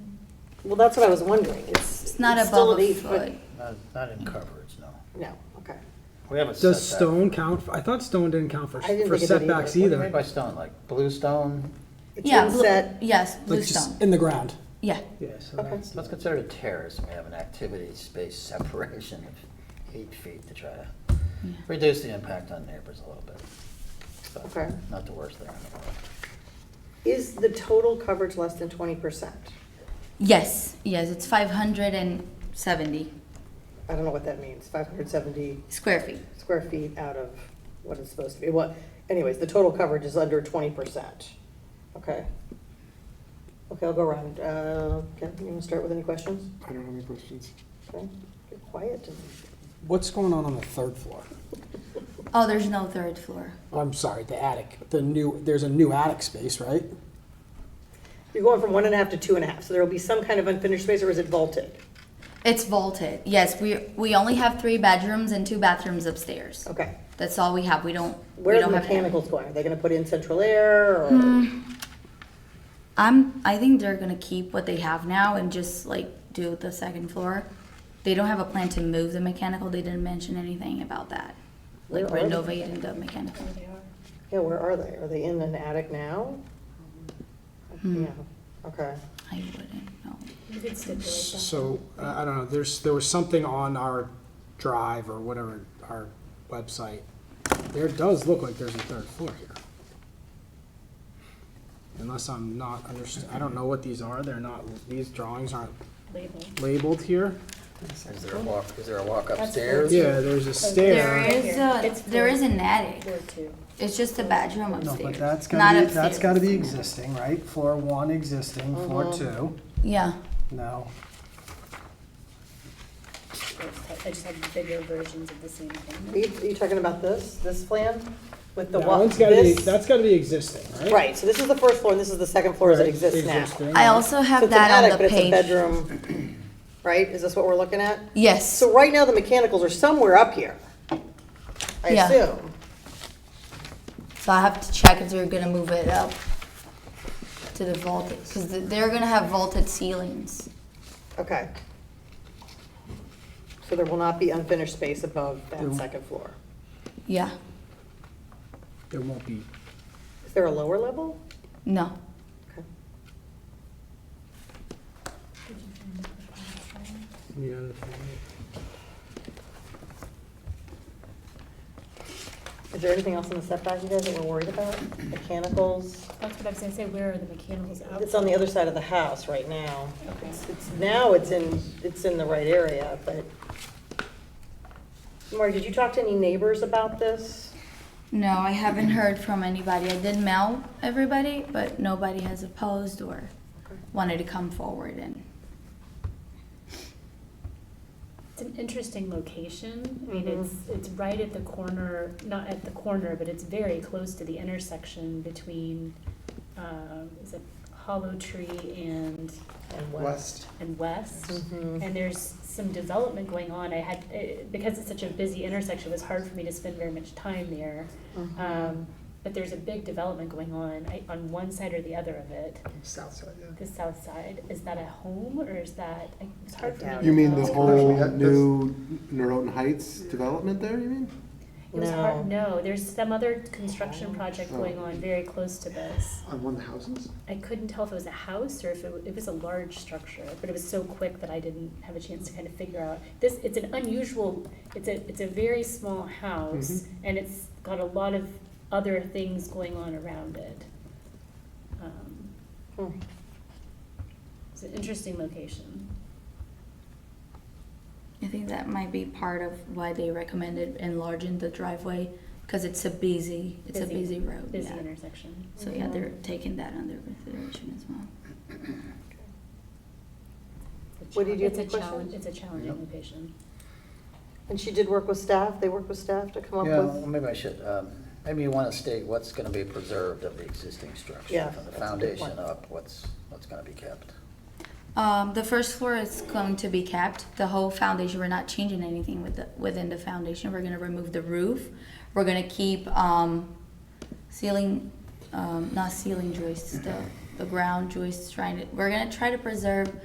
Well, that's what I was wondering. It's. It's not still above an a eight foot. Not, not in coverage, no. No, okay. We have a setback. Does stone count? for- I thought stone didn't count for, I didn't for think it did setbacks What do you either. mean by stone, like blue stone? It's Yeah, blue- inset, yes, blue Like just stone, in the ground. yeah. Yeah, so Okay. that's, Let's consider a terrace, we have an activity space separation of eight feet to try to reduce the impact on neighbors a little bit. But Okay. Not the worst thing in the world. is the total coverage less than twenty percent? Yes, yes, it's five hundred and seventy I don't know what that means, five hundred seventy square feet. square feet out of what it's supposed to be. What, anyways, the total coverage is under twenty percent. Okay. Okay, I'll go around. Uh, Ken, you wanna start with any questions? I don't have any questions. Okay, You're quiet. what's going on on the third floor? Oh, there's no third floor. I'm sorry, the attic. The new there's a new attic space, right? You're going from one and a half to two and a half, so there will be some kind of unfinished space, or is it vaulted? It's vaulted. Yes, we we only have three bedrooms and two bathrooms upstairs. Okay. That's all we have. We don't. we Where's don't the have mechanicals going? Are they gonna put in central air or? I'm. I think they're gonna keep what they have now and just like do the second floor. They don't have a plan to move the mechanical. They didn't mention anything about that, like Where are they? renovating the mechanical. Yeah, where are they? Are they in an attic now? Hmm. Yeah, okay. I wouldn't know. So I I don't know. There's there was something on our drive or whatever our website. There does look like there's a third floor here. Unless I'm not underst- I don't know what these are. They're not. These drawings aren't labeled here. Is there a walk, is there a walk upstairs? Yeah, there's a stair. There is It's a, there is an attic. Or two. It's just a bedroom No, upstairs. but that's Not gotta be, that's upstairs. gotta be existing, right? Floor one existing, floor two, Yeah. no. I just have bigger versions of the same Are thing. you, are you talking about this, this plan with the That wa- one's gotta be, this- that's gotta be existing, right? Right, so this is the first floor and this is the second floor as it exists now. So I also have it's an that attic, on but the it's a page. bedroom, right? Is this what we're looking at? Yes. So right now, the mechanicals are somewhere up here, I Yeah. assume. So I have to check if they're gonna move it up to the vaulted, because they're gonna have vaulted ceilings. Okay. So there will not be unfinished space above that second floor. Yeah, There won't be, Is there a lower level? no. Okay. you know, Is there anything else in the setback you guys that we're worried about? Mechanicals? That's what I was gonna say, where are the mechanicals out? It's on the other side of the house right now. Okay. It's, now it's in, it's in the right area, but. Marty, did you talk to any neighbors about this? No, I haven't heard from anybody. I did mail everybody, but nobody has opposed or wanted to come forward and, It's an interesting location. I mean, Mhm. it's, it's right at the corner, not at the corner, but it's very close to the intersection between, uh, is it Hollow Tree and, And what? West. and West? Mhm. And there's some development going on. I had, eh, because it's such a busy intersection, it was hard for me to spend very much time there. Mm-hmm. Um, but there's a big development going on, I, on one side or the other of it. South side, yeah. The south side, is that a home or is that, I- it's hard for me to You mean the tell. whole new Norotan Heights development there, you mean? It was hard, no, there's some other construction project Oh. going on very close to this. On one of the houses? I couldn't tell if it was a house or if it, wa- it was a large structure, but it was so quick that I didn't have a chance to kind of figure out. This, it's an unusual, it's a, it's a very small house Mm-hmm. and it's got a lot of other things going on around it. Um, Hmm. It's an interesting location. I think that might be part of why they recommended enlarging the driveway, because it's a busy, it's a busy Busy- road, busy yeah. intersection. So yeah, they're taking that under consideration as well. It's a What did you chal- think, It's a question? challenge, it's a challenging location. And she did work with staff, they worked with staff to come up Yeah, well, with? maybe I should, um, maybe you want to state what's going to be preserved of the existing structure. Yeah, From the that's a good foundation point. up, what's, what's going to be kept? Um, the first floor is going to be kept. The whole foundation, we're not changing anything with the, within the foundation. We're gonna remove the roof. We're gonna keep um, ceiling, um, not ceiling joists, the, the ground joists. Trying to, we're gonna try to preserve